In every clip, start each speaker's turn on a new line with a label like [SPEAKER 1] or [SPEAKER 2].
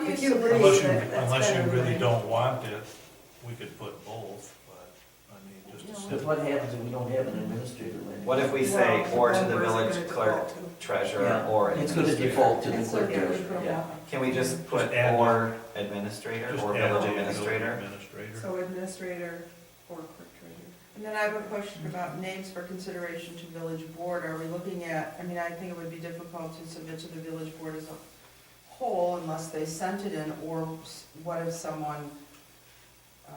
[SPEAKER 1] If you agree
[SPEAKER 2] Unless you,
[SPEAKER 1] that that's
[SPEAKER 2] unless you
[SPEAKER 1] better
[SPEAKER 2] really
[SPEAKER 1] than-
[SPEAKER 2] don't want it, we could put both, but, I mean, just to
[SPEAKER 3] Because
[SPEAKER 2] sit.
[SPEAKER 3] what happens if we don't have an administrator? Lynn?
[SPEAKER 4] What if we say,
[SPEAKER 1] Well,
[SPEAKER 4] or to the
[SPEAKER 1] where's it
[SPEAKER 4] village
[SPEAKER 1] gonna
[SPEAKER 4] clerk,
[SPEAKER 1] default to?
[SPEAKER 4] treasurer,
[SPEAKER 3] Yeah,
[SPEAKER 4] or
[SPEAKER 3] It's going to
[SPEAKER 4] administrator?
[SPEAKER 3] default to the
[SPEAKER 1] That's what
[SPEAKER 3] clerk
[SPEAKER 1] the other
[SPEAKER 3] treasurer, yeah.
[SPEAKER 1] problem.
[SPEAKER 4] Can we just put
[SPEAKER 2] Just add-
[SPEAKER 4] or administrator,
[SPEAKER 2] just
[SPEAKER 4] or
[SPEAKER 2] add
[SPEAKER 4] village
[SPEAKER 2] the
[SPEAKER 4] administrator?
[SPEAKER 2] administrator.
[SPEAKER 1] So administrator or clerk treasurer.
[SPEAKER 5] And then I have a question about names for consideration to village board. Are we looking at, I mean, I think it would be difficult to submit to the village board as a whole unless they sent it in, or s- what if someone uh,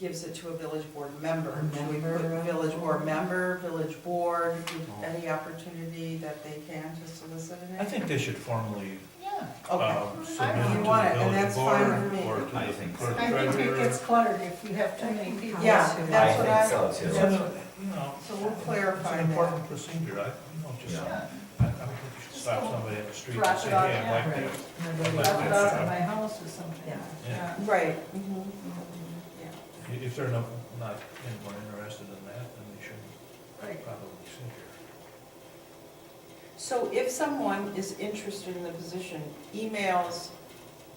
[SPEAKER 5] gives it to a village board member? Should we put
[SPEAKER 1] Member.
[SPEAKER 5] village board member, village board, any opportunity that they can to solicit
[SPEAKER 2] I
[SPEAKER 5] a name?
[SPEAKER 2] think they should formally,
[SPEAKER 5] Okay.
[SPEAKER 2] um,
[SPEAKER 5] I
[SPEAKER 2] submit
[SPEAKER 5] don't-
[SPEAKER 2] it to
[SPEAKER 5] you
[SPEAKER 2] the
[SPEAKER 5] want it, and
[SPEAKER 2] village
[SPEAKER 5] that's fine
[SPEAKER 2] board
[SPEAKER 5] with me.
[SPEAKER 2] or to
[SPEAKER 4] I
[SPEAKER 2] the
[SPEAKER 4] think
[SPEAKER 2] clerk
[SPEAKER 4] so.
[SPEAKER 6] I think it
[SPEAKER 2] treasurer.
[SPEAKER 6] gets cluttered if you have too many people.
[SPEAKER 5] Yeah,
[SPEAKER 6] too.
[SPEAKER 5] that's what I-
[SPEAKER 4] I think
[SPEAKER 2] It's
[SPEAKER 4] so too.
[SPEAKER 2] an, you know,
[SPEAKER 5] So we'll
[SPEAKER 2] it's
[SPEAKER 5] clarify
[SPEAKER 2] an
[SPEAKER 5] that.
[SPEAKER 2] important procedure, I, you know, just, I,
[SPEAKER 6] Yeah.
[SPEAKER 2] I don't think you should stop somebody in the street and
[SPEAKER 6] Drop
[SPEAKER 2] say,
[SPEAKER 6] it
[SPEAKER 2] hey,
[SPEAKER 6] off,
[SPEAKER 2] I'd like
[SPEAKER 6] yeah.
[SPEAKER 2] to.
[SPEAKER 6] Drop it off at my house or something.
[SPEAKER 1] Yeah.
[SPEAKER 2] Yeah.
[SPEAKER 5] Right. mhm.
[SPEAKER 2] If- If they're not, not anymore interested in that, then they shouldn't
[SPEAKER 6] Right.
[SPEAKER 2] probably sit here.
[SPEAKER 5] So if someone is interested in the position, emails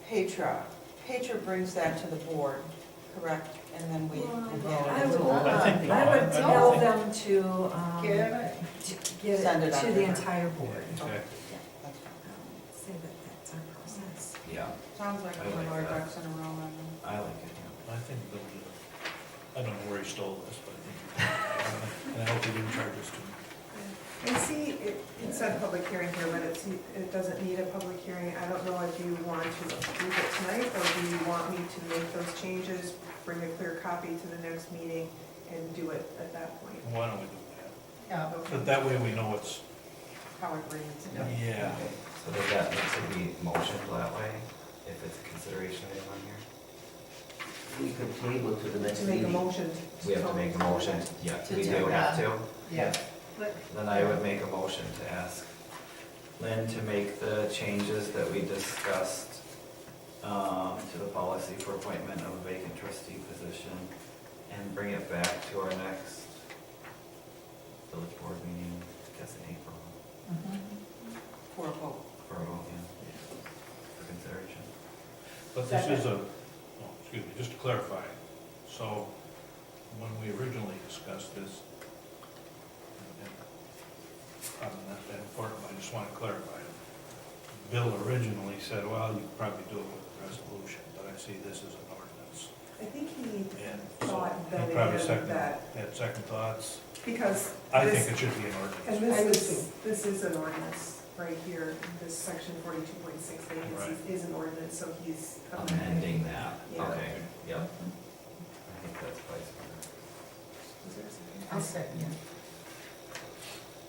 [SPEAKER 5] Petra, Petra brings that to the board, correct? And then we. and
[SPEAKER 1] I
[SPEAKER 5] then-
[SPEAKER 1] would,
[SPEAKER 2] I think-
[SPEAKER 1] I would
[SPEAKER 2] I
[SPEAKER 1] tell
[SPEAKER 2] think-
[SPEAKER 1] them to, um,
[SPEAKER 6] Get
[SPEAKER 1] to
[SPEAKER 6] it?
[SPEAKER 1] give
[SPEAKER 5] Send
[SPEAKER 1] it
[SPEAKER 5] it out
[SPEAKER 1] to the
[SPEAKER 5] there.
[SPEAKER 1] entire board.
[SPEAKER 7] Um,
[SPEAKER 2] Exactly.
[SPEAKER 5] That's fine.
[SPEAKER 1] Um, Say that that's our process.
[SPEAKER 4] Yeah,
[SPEAKER 5] Sounds like
[SPEAKER 4] I
[SPEAKER 5] we're
[SPEAKER 4] like
[SPEAKER 5] more
[SPEAKER 4] that.
[SPEAKER 5] ducks in a row on
[SPEAKER 4] I like it,
[SPEAKER 2] I think they'll do it. I don't know where he stole this, but I think, and I hope he didn't charge us too
[SPEAKER 1] And see, it, it said public hearing here, but it's, it doesn't need a public hearing. I don't know if you want to approve it tonight, or do you want me to make those changes, bring a clear copy to the next meeting, and do it at that point?
[SPEAKER 2] much. Why don't we do that?
[SPEAKER 6] Yeah.
[SPEAKER 2] But that way we know what's,
[SPEAKER 5] how it reads.
[SPEAKER 2] yeah.
[SPEAKER 4] yeah. So does that need to be motioned that way, if it's a consideration item on here?
[SPEAKER 3] We could table it to the next
[SPEAKER 1] To make a
[SPEAKER 3] meeting.
[SPEAKER 1] motion.
[SPEAKER 4] We have to make a motion, yeah,
[SPEAKER 5] To
[SPEAKER 4] we
[SPEAKER 5] do
[SPEAKER 4] do have
[SPEAKER 6] that.
[SPEAKER 4] to.
[SPEAKER 6] Yeah.
[SPEAKER 4] Then I would make a motion to ask Lynn to make the changes that we discussed um, to the policy for appointment of a vacant trustee position and bring it back to our next village board meeting, I guess in April,
[SPEAKER 6] Mm-hmm.
[SPEAKER 5] For a vote.
[SPEAKER 4] for a vote, yeah, for consideration.
[SPEAKER 2] But this is a, oh, excuse me, just to clarify, so when we originally discussed this, and- and I'm not that important, but I just want to clarify it. Bill originally said, well, you could probably do it with a resolution, but I see this as an ordinance.
[SPEAKER 1] I think he
[SPEAKER 2] And so
[SPEAKER 1] thought that
[SPEAKER 2] he
[SPEAKER 1] it
[SPEAKER 2] probably
[SPEAKER 1] was
[SPEAKER 2] second,
[SPEAKER 1] that,
[SPEAKER 2] had second thoughts.
[SPEAKER 1] because
[SPEAKER 2] I
[SPEAKER 1] this-
[SPEAKER 2] think it should be an
[SPEAKER 1] And
[SPEAKER 2] ordinance.
[SPEAKER 6] I would
[SPEAKER 1] this is,
[SPEAKER 6] too.
[SPEAKER 1] this is an ordinance right here, this section forty-two point six vacancies is an ordinance, so he's.
[SPEAKER 4] Amending that,
[SPEAKER 1] Yeah.
[SPEAKER 4] okay, yep. I think that's probably smarter.
[SPEAKER 1] Is there a second?
[SPEAKER 6] I'll second it.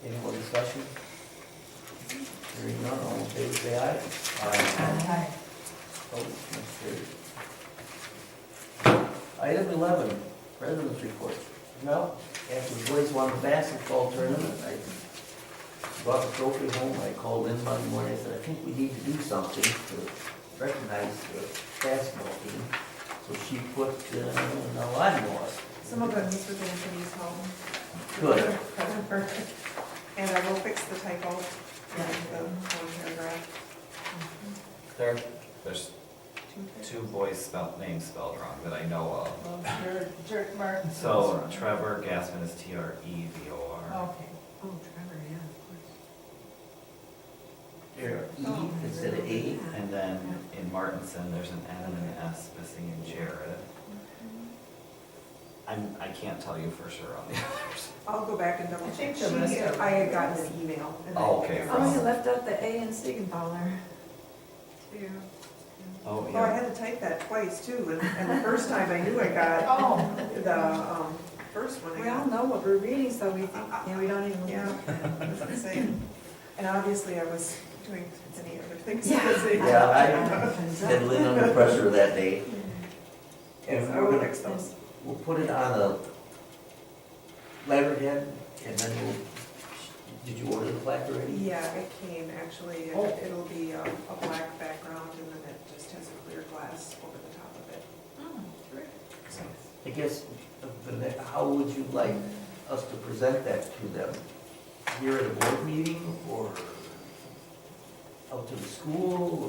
[SPEAKER 3] Any more discussion? Hearing none, all in favor, say aye. Aye.
[SPEAKER 6] Aye.
[SPEAKER 3] Opposed, motion carried. Item eleven, president's report. Well, after the boys won the basketball tournament, I brought the trophy home, I called in Monday morning, I said, I think we need to do something to recognize the basketball team. So she put, uh, a line was.
[SPEAKER 1] Some of it was for Anthony's home.
[SPEAKER 3] Good.
[SPEAKER 1] And I will fix the typo in the one paragraph.
[SPEAKER 4] There, there's
[SPEAKER 1] Two
[SPEAKER 4] two boys spelled, names spelled wrong that I know of.
[SPEAKER 6] Well, your jerk Martin's.
[SPEAKER 4] So Trevor Gasman is T R E V O R.
[SPEAKER 6] Okay.
[SPEAKER 1] Oh, Trevor, yeah, of
[SPEAKER 3] There, E instead of A.
[SPEAKER 4] And then in Martinson, there's an N and an S missing in Jared. I'm, I can't tell you for sure on the others.
[SPEAKER 1] I'll go back and double check.
[SPEAKER 6] think the rest
[SPEAKER 1] She-
[SPEAKER 6] of-
[SPEAKER 1] I had gotten an email. and I
[SPEAKER 4] Oh, okay,
[SPEAKER 1] figured
[SPEAKER 4] from-
[SPEAKER 1] out.
[SPEAKER 7] Oh, you left out the A in Siegenthaler. Too.
[SPEAKER 4] Oh,
[SPEAKER 1] Well, I
[SPEAKER 4] yeah.
[SPEAKER 1] had to type that twice too, and, and the first time I knew I got
[SPEAKER 6] Oh.
[SPEAKER 1] the, um, first one I
[SPEAKER 7] We all
[SPEAKER 1] got.
[SPEAKER 7] know what we're reading, so we think, yeah, we don't even.
[SPEAKER 1] Yeah, I was gonna say, and obviously I was doing many other things. busy.
[SPEAKER 3] Yeah, I had
[SPEAKER 7] I.
[SPEAKER 3] Lynn under pressure that day.
[SPEAKER 1] Yes,
[SPEAKER 3] And
[SPEAKER 1] I
[SPEAKER 3] we're
[SPEAKER 1] will
[SPEAKER 3] gonna,
[SPEAKER 1] fix those.
[SPEAKER 3] we'll put it on a letterhead and then we'll, did you order the plaque already?
[SPEAKER 1] Yeah, it came actually, and
[SPEAKER 3] Oh.
[SPEAKER 1] it'll be um, a black background and then it just has a clear glass over the top of it.
[SPEAKER 3] I guess, the- the ne- how would you like us to present that to them? Here at a board meeting or out to the school